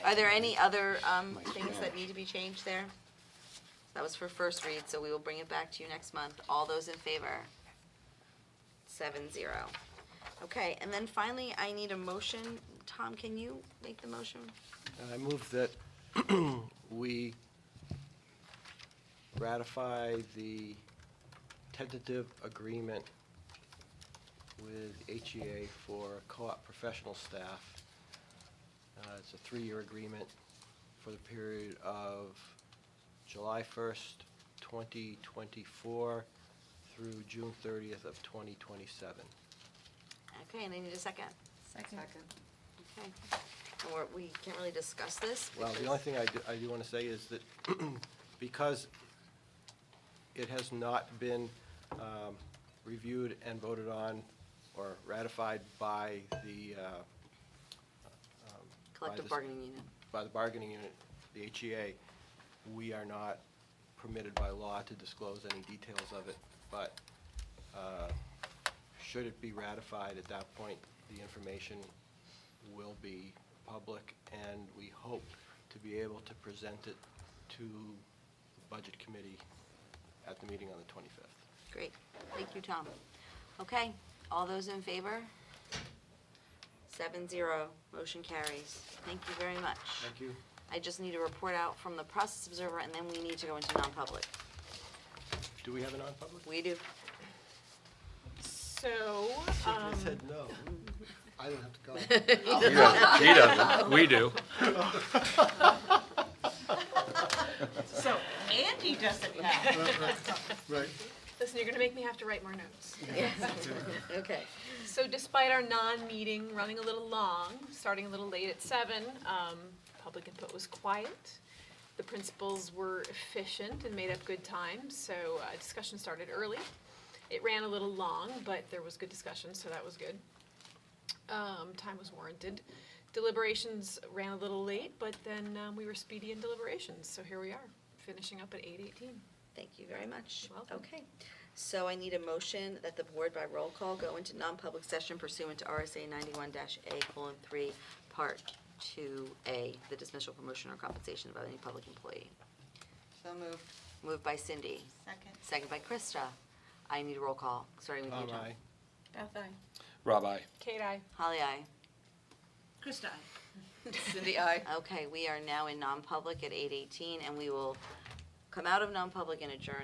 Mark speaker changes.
Speaker 1: Are there any other um, things that need to be changed there? That was for first read, so we will bring it back to you next month. All those in favor? Seven zero. Okay, and then finally, I need a motion. Tom, can you make the motion?
Speaker 2: I move that we ratify the tentative agreement with HEA for co-op professional staff. Uh, It's a three-year agreement for the period of July 1st, 2024 through June 30th of 2027.
Speaker 1: Okay, and I need a second.
Speaker 3: Second.
Speaker 1: Okay. Or we can't really discuss this.
Speaker 2: Well, the
Speaker 1: because-
Speaker 2: only thing I do, I do want to say is that because it has not been um, reviewed and voted on or ratified by the, uh, um, by
Speaker 1: Collective
Speaker 2: this-
Speaker 1: bargaining unit.
Speaker 2: By the bargaining unit, the HEA, we are not permitted by law to disclose any details of it. But uh, should it be ratified at that point, the information will be public, and we hope to be able to present it to the Budget Committee at the meeting on the 25th.
Speaker 1: Great. Thank you, Tom. Okay, all those in favor? Seven zero, motion carries. Thank you very much.
Speaker 2: you.
Speaker 1: I just need a report out from the process observer, and then we need to go into non-public.
Speaker 2: Do we have a non-public?
Speaker 1: We do.
Speaker 4: So,
Speaker 2: I
Speaker 4: um,
Speaker 2: said no. I don't have to go.
Speaker 5: He doesn't, he doesn't, we do.
Speaker 3: So Andy doesn't have.
Speaker 6: Right.
Speaker 4: listen, you're gonna make me have to write more notes.
Speaker 1: Okay.
Speaker 4: So despite our non-meeting running a little long, starting a little late at seven, um, public input was quiet. The principals were efficient and made up good time, so uh, discussion started early. It ran a little long, but there was good discussion, so that was good. Um, time was warranted. Deliberations ran a little late, but then, um, we were speedy in deliberations, so here we are, finishing up at eight eighteen.
Speaker 1: Thank you very much.
Speaker 4: You're welcome.
Speaker 1: Okay. So I need a motion that the board by roll call go into non-public session pursuant to RSA ninety-one A colon three, part two A, the dismissal, promotion, or compensation of any public employee.
Speaker 3: So moved.
Speaker 1: Moved by Cindy,
Speaker 3: Second.
Speaker 1: second by Krista. I need a roll call, starting with you, John.
Speaker 2: Aye.
Speaker 3: Beth, I.
Speaker 5: Rob, I.
Speaker 4: Kate, I.
Speaker 1: Holly, aye.
Speaker 3: Krista, I. Cindy, I.
Speaker 1: Okay, we are now in non-public at eight eighteen, and we will come out of non-public and adjourn